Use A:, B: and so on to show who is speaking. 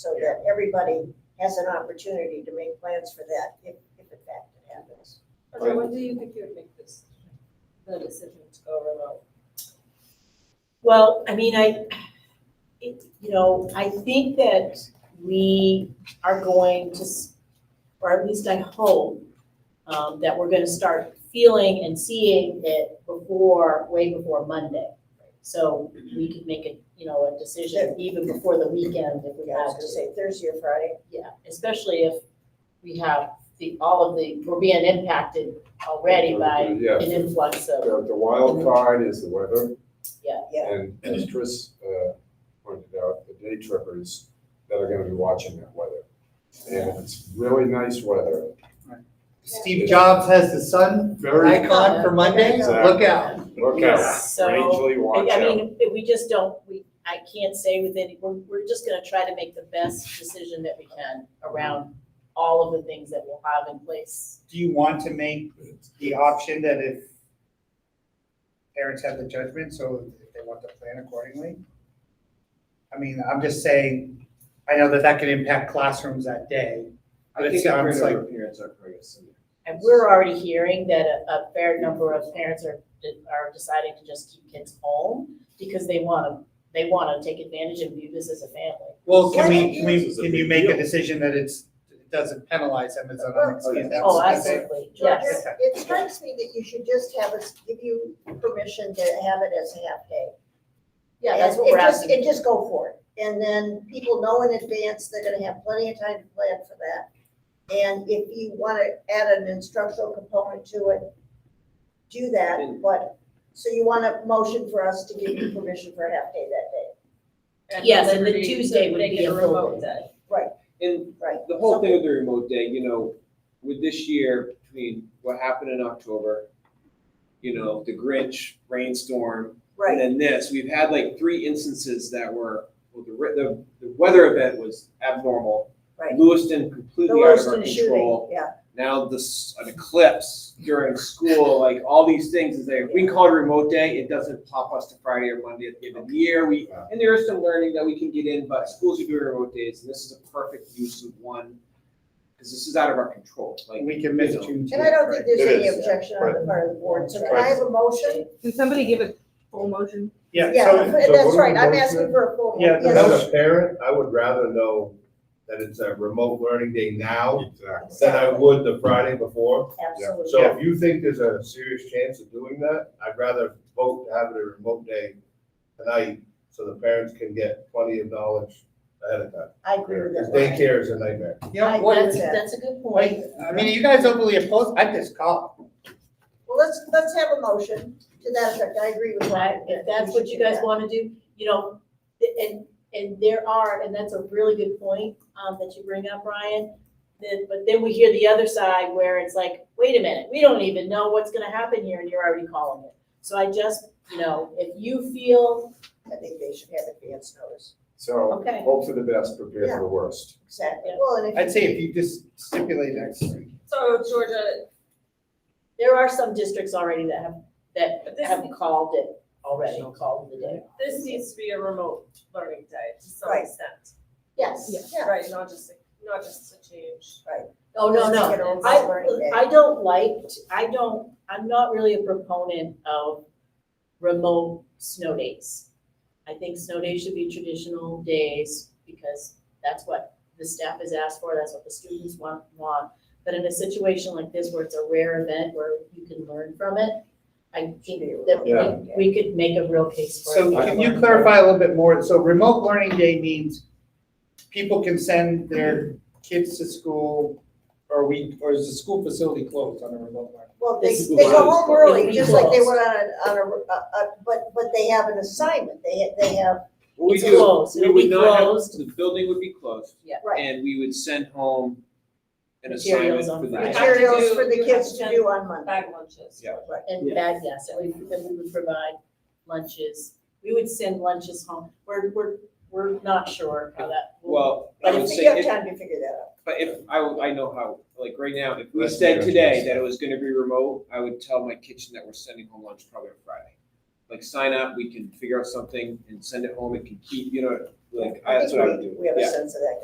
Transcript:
A: so that everybody has an opportunity to make plans for that, if, if in fact it happens.
B: Okay, when do you think you would make this, the decision to go remote?
C: Well, I mean, I, it, you know, I think that we are going to, s- or at least I hope, um, that we're gonna start feeling and seeing it before, way before Monday. So we could make a, you know, a decision even before the weekend if we
A: Yeah, I was gonna
C: have to.
A: say Thursday or Friday.
C: Yeah, especially if we have the, all of the, we're being impacted already by
D: Yeah,
C: an influx of,
D: the, the wild card is the weather.
C: Yeah.
A: Yeah.
D: And as Chris, uh, pointed out, the day trippers that are gonna be watching that weather. And if it's really nice weather,
E: Steve Jobs has the sun
D: very,
E: icon for Monday, look out.
D: look out,
C: So-
D: strangely
C: I
D: watch
C: I
D: out.
C: mean, if we just don't, we, I can't say with any, we're, we're just gonna try to make the best decision that we can around all of the things that we'll have in place.
F: Do you want to make the option that if parents have the judgment, so if they want to plan accordingly? I mean, I'm just saying, I know that that can impact classrooms that day.
G: I
F: It
G: think
F: sounds
G: parents are, parents are pretty similar.
C: And we're already hearing that a, a fair number of parents are, are deciding to just keep kids home because they wanna, they wanna take advantage and view this as a family.
F: Well,
A: Well,
F: can we, can
G: this
F: we,
G: is a
F: can you
G: big
F: make a
G: deal.
F: decision that it's, it doesn't penalize them as an
A: Oh,
F: unexcused
G: yeah.
F: absence?
C: Oh,
F: I think-
C: absolutely,
A: Georgia,
C: yes.
F: Yes.
A: It strikes me that you should just have us, give you permission to have it as a half day.
C: Yeah, that's what
A: And-
C: we're
A: and just-
C: asking.
A: And just go for it. And then people know in advance, they're gonna have plenty of time to plan for that. And if you wanna add an instructional component to it, do that, but, so you want a motion for us to give you permission for a half day that day,
C: Yes, and the Tuesday would be a full day.
G: And
A: right?
G: the whole thing with the remote day, you know, with this year, between what happened in October, you know, the Grinch rainstorm, and
A: Right,
G: then this, we've had like three instances that were, well, the, re- the, the weather event was abnormal.
A: Right.
G: Lewiston
A: the
G: completely out of our
A: Lewiston
G: control.
A: shooting, yeah,
G: now this an eclipse during school, like all these things is there. If we call it a remote day, it doesn't pop us to Friday or Monday at the end of the year. We and there is some learning that we can get in, but schools are doing remote days, and this is a perfect use of one because this is out of our control. Like
F: We can miss Juneteenth.
A: and I don't think there's
D: It
A: any
D: is,
A: objection on the part of the board, so can I
D: Right.
A: have a motion?
H: Can somebody give a full motion?
F: Yeah,
A: Yeah,
D: so
F: so,
D: what
A: that's
D: do
A: right,
D: we
A: I'm
D: vote
A: asking
D: for?
A: for a full.
F: Yeah, the
A: yes.
F: motion.
I: As a parent, I would rather know that it's a remote learning day now
D: Exactly.
I: than I would the Friday before.
A: Absolutely.
I: So if you think there's a serious chance of doing that, I'd rather vote to have it a remote day tonight so the parents can get plenty of knowledge ahead of time.
A: I agree with
I: Because
A: that.
I: daycare is a nightmare.
F: yeah,
C: I-
A: what
C: that's-
A: is that?
C: That's a good point.
F: wait, I mean, are you guys overly opposed? I just call.
A: Well, let's, let's have a motion to that effect, I agree with
C: Right,
A: that.
C: if that's what you guys wanna do, you know, th- and, and there are, and that's a really good point, um, that you bring up, Brian. Then, but then we hear the other side where it's like, wait a minute, we don't even know what's gonna happen here and you're already calling it. So I just, you know, if you feel,
A: I think they should have advance notice,
D: So
C: Okay.
D: hope for the best, prepare
A: Yeah.
D: for the worst.
A: exactly, well, and if.
F: I'd say if you just stipulate next week.
B: So Georgia,
C: there are some districts already that have, that
B: But this-
C: have called it already, called the day.
B: this needs to be a remote learning day to some
A: Right.
B: extent,
A: Yes, yeah.
B: right, not just, not just a change.
C: Oh, no,
A: Let's
C: no,
A: make it a learning day.
C: I, I don't like, I don't, I'm not really a proponent of remote snow days. I think snow days should be traditional days because that's what the staff is asked for, that's what the students want, want. But in a situation like this where it's a rare event where you can learn from it, I think that
D: Yeah.
C: we, we could make a real case for it.
F: So can you clarify a little bit more? So remote learning day means people can send their kids to school or we, or is the school facility closed on a remote learning?
A: Well, they,
C: This-
A: they go home early,
C: It'll be
A: just like they
C: closed.
A: went on a, on a, a, a- but, but they have an assignment, they, ha- they have,
G: what we
C: It's
G: do,
C: closed,
G: we
C: it'll be
G: would not have,
C: closed.
G: the building would be closed,
A: right,
G: and we would send home an assignment
C: Materials on
G: for the
C: Friday.
G: day.
A: materials
B: do-
A: for the
B: you have
A: kids to
B: to-
A: do on Monday.
B: Bag lunches.
G: Yeah.
A: Right.
C: And bad, yes, and we, then we would provide lunches, we would send lunches home, we're, we're, we're not sure how that. will-
G: Well, I
A: But
G: would
A: if
G: say,
A: you have
G: if-
A: time to figure that
G: but if, I, I know how, like, right now, if we
D: That's
G: said today
D: negotiation.
G: that it was gonna be remote, I would tell my kitchen that we're sending home lunch probably on Friday. Like, sign up, we can figure out something and send it home, it can keep, you know, like,
A: out.
G: I-
A: I
G: that's
A: think
G: what I would
A: we-
G: do.
A: We have
G: Yeah.
A: a sense of that,